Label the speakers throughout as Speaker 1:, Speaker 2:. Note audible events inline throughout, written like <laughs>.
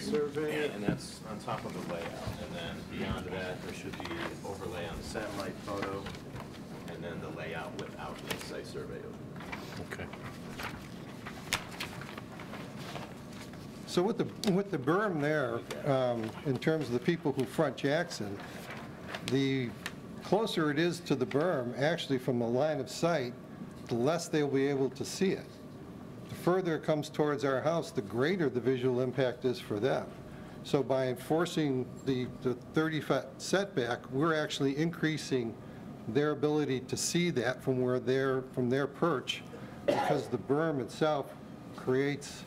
Speaker 1: survey.
Speaker 2: And that's on top of the layout, and then beyond that, there should be overlay on the satellite photo, and then the layout without the site survey.
Speaker 3: Okay.
Speaker 1: So with the, with the berm there, um, in terms of the people who front Jackson, the closer it is to the berm, actually from the line of sight, the less they'll be able to see it. The further it comes towards our house, the greater the visual impact is for them. So by enforcing the the 30-foot setback, we're actually increasing their ability to see that from where they're, from their perch, because the berm itself creates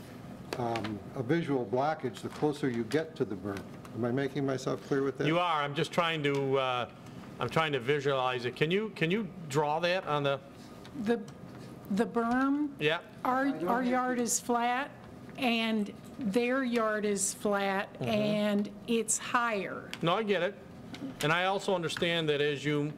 Speaker 1: um, a visual blockage the closer you get to the berm. Am I making myself clear with that?
Speaker 3: You are, I'm just trying to, uh, I'm trying to visualize it. Can you, can you draw that on the,
Speaker 4: The, the berm,
Speaker 3: yeah?
Speaker 4: our, our yard is flat, and their yard is flat,
Speaker 1: Mm-hmm.
Speaker 4: and it's higher.
Speaker 3: No, I get it. And I also understand that as you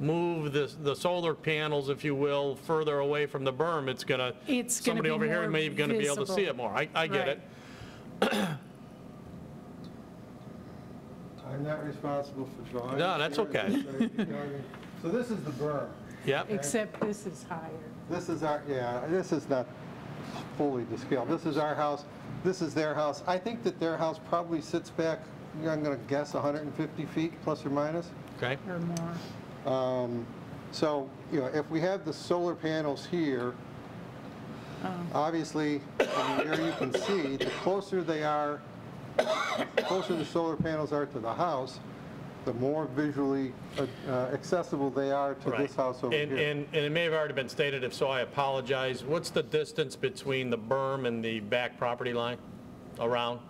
Speaker 3: move the, the solar panels, if you will, further away from the berm, it's gonna,
Speaker 4: It's gonna
Speaker 3: somebody
Speaker 4: be
Speaker 3: over here
Speaker 4: more
Speaker 3: may be gonna be able to see it
Speaker 4: visible.
Speaker 3: more. I, I get
Speaker 4: Right.
Speaker 3: it.
Speaker 1: I'm not responsible for drawing.
Speaker 3: No, that's okay.
Speaker 1: <laughs> So this is the berm.
Speaker 3: Yep,
Speaker 4: Except this is higher.
Speaker 1: This is our, yeah, this is not fully to scale. This is our house, this is their house. I think that their house probably sits back, I'm going to guess 150 feet, plus or minus.
Speaker 3: okay.
Speaker 4: or more.
Speaker 1: Um, So, you know, if we have the solar panels here,
Speaker 4: Oh.
Speaker 1: obviously, from here you can see, the closer they are, the closer the solar panels are to the house, the more visually uh, accessible they are to
Speaker 3: Right.
Speaker 1: this house over
Speaker 3: And,
Speaker 1: here.
Speaker 3: and, and it may have already been stated, if so, I apologize. What's the distance between the berm and the back property line? Around?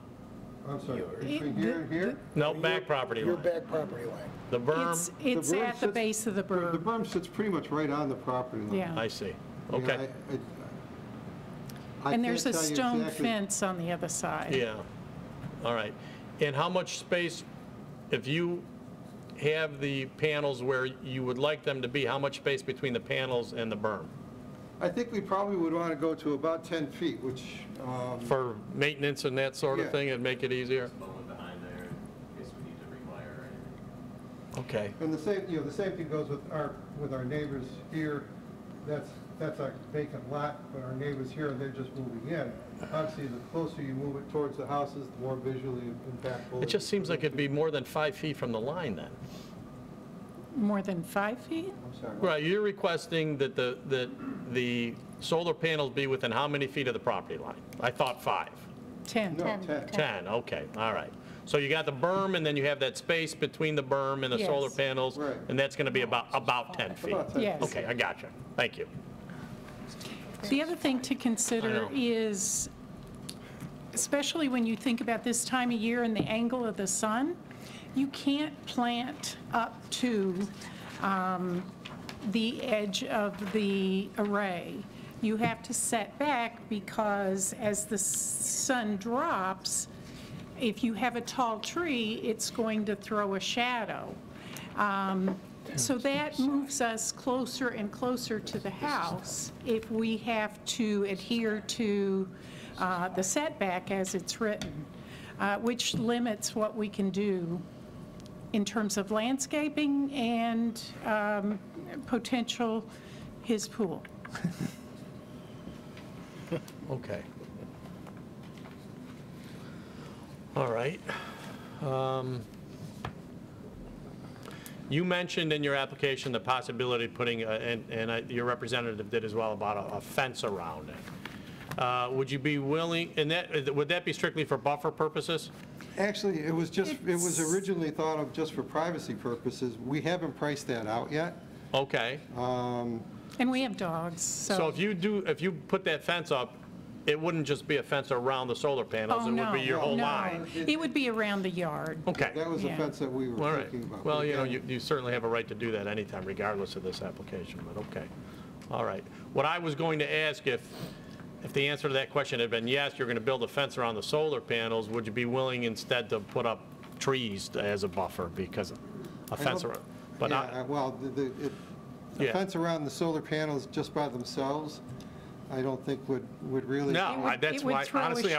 Speaker 1: I'm sorry,
Speaker 4: It-
Speaker 1: between here and here?
Speaker 3: No, back property
Speaker 5: Your
Speaker 3: line.
Speaker 5: back property line.
Speaker 3: The
Speaker 4: It's,
Speaker 3: berm,
Speaker 4: it's
Speaker 1: Um, berm
Speaker 4: at the
Speaker 1: sits-
Speaker 4: base of the
Speaker 1: The
Speaker 4: berm,
Speaker 1: berm sits pretty much right on the property line.
Speaker 4: yeah.
Speaker 3: I see.
Speaker 1: You know,
Speaker 3: Okay,
Speaker 1: I- I- I
Speaker 4: And there's a
Speaker 1: can't tell you
Speaker 4: stone
Speaker 1: exactly-
Speaker 4: fence on the other side.
Speaker 3: yeah, all right. And how much space, if you have the panels where you would like them to be, how much space between the panels and the berm?
Speaker 1: I think we probably would want to go to about 10 feet, which, um,
Speaker 3: For maintenance and that sort of
Speaker 1: Yeah.
Speaker 3: thing, it'd make it easier?
Speaker 2: Bowman behind there, in case we need to rewire anything.
Speaker 3: Okay,
Speaker 1: and the same, you know, the same thing goes with our, with our neighbors here. That's, that's a vacant lot, but our neighbors here, they're just moving in. Obviously, the closer you move it towards the houses, the more visually impactful.
Speaker 3: it just seems like it'd be more than five feet from the line then.
Speaker 4: More than five feet?
Speaker 1: I'm sorry.
Speaker 3: Right, you're requesting that the, that the solar panels be within how many feet of the property line? I thought five.
Speaker 4: 10.
Speaker 1: No, 10.
Speaker 3: 10, okay, all right. So you got the berm, and then you have that space between the berm and the solar
Speaker 4: Yes.
Speaker 3: panels,
Speaker 1: Right.
Speaker 3: and that's going to be about, about 10 feet.
Speaker 1: About 10.
Speaker 4: Yes.
Speaker 3: Okay, I got you. Thank you.
Speaker 4: The other thing to
Speaker 3: I
Speaker 4: consider
Speaker 3: know.
Speaker 4: is, especially when you think about this time of year and the angle of the sun, you can't plant up to um, the edge of the array. You have to set back because as the sun drops, if you have a tall tree, it's going to throw a shadow. Um, So that moves us closer and closer to the house if we have to adhere to uh, the setback as it's written, uh, which limits what we can do in terms of landscaping and um, potential his pool.
Speaker 3: Okay. All right. Um, You mentioned in your application the possibility of putting, a- and and I- your representative did as well, about a- a fence around it. Uh, Would you be willing, and that, would that be strictly for buffer purposes?
Speaker 1: Actually, it was just, it was
Speaker 4: It's-
Speaker 1: originally thought of just for privacy purposes. We haven't priced that out yet.
Speaker 3: Okay.
Speaker 1: Um,
Speaker 4: And we have dogs, so. Oh.
Speaker 3: So if you do, if you put that fence up, it wouldn't just be a fence around the solar panels,
Speaker 4: Oh,
Speaker 3: it would
Speaker 4: no,
Speaker 3: be your whole
Speaker 4: no.
Speaker 3: line?
Speaker 4: It would be around the yard.
Speaker 3: Okay,
Speaker 1: That was the
Speaker 4: Yeah.
Speaker 1: fence that we
Speaker 3: all
Speaker 1: were thinking about.
Speaker 3: right. Well, you know,
Speaker 1: Again,
Speaker 3: you you certainly have a right to do that anytime regardless of this application, but okay. All right. What I was going to ask if, if the answer to that question had been yes, you're going to build a fence around the solar panels, would you be willing instead to put up trees as a buffer because a fence
Speaker 1: hope-
Speaker 3: around? But
Speaker 1: yeah,
Speaker 3: not-
Speaker 1: uh, Well, the- the, it- the
Speaker 3: Yeah.
Speaker 1: fence around the solar panels just by themselves, I don't think would, would really.
Speaker 3: no,
Speaker 4: It would-
Speaker 3: I- that's
Speaker 4: it would
Speaker 3: why,
Speaker 4: throw a
Speaker 3: honestly, I